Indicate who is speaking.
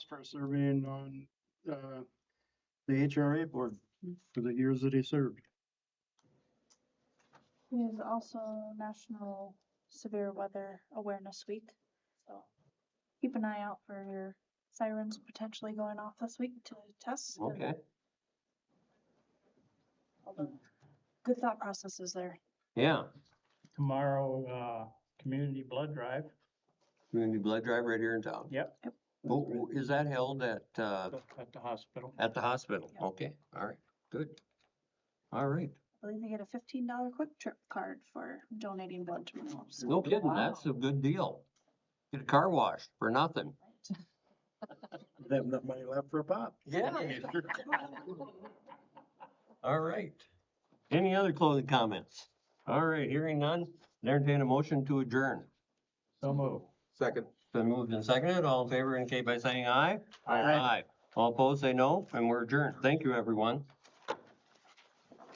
Speaker 1: for serving on, uh, the HRA board for the years that he served.
Speaker 2: It is also National Severe Weather Awareness Week, so keep an eye out for your sirens potentially going off this week to test. and
Speaker 3: Okay,
Speaker 2: all the Good thought processes there.
Speaker 3: yeah.
Speaker 4: tomorrow, uh, community blood drive.
Speaker 3: Community blood drive right here in town.
Speaker 4: Yep.
Speaker 2: Yep.
Speaker 3: Oh, oh, is that held at, uh,
Speaker 4: At the hospital.
Speaker 3: at the hospital?
Speaker 2: Yeah.
Speaker 3: Okay, all right, good. All right,
Speaker 2: I believe they get a fifteen dollar quick trip card for donating blood tomorrow. so-
Speaker 3: no kidding, that's a good deal. Get a car wash for nothing.
Speaker 1: They have enough money left for a pop.
Speaker 3: Yeah. All right. Any other closing comments? All right, hearing none, entertain a motion to adjourn.
Speaker 4: So move.
Speaker 5: Second.
Speaker 3: Been moved and seconded, all in favor indicate by saying aye.
Speaker 1: Aye.
Speaker 3: All opposed, say no, and we're adjourned. Thank you, everyone.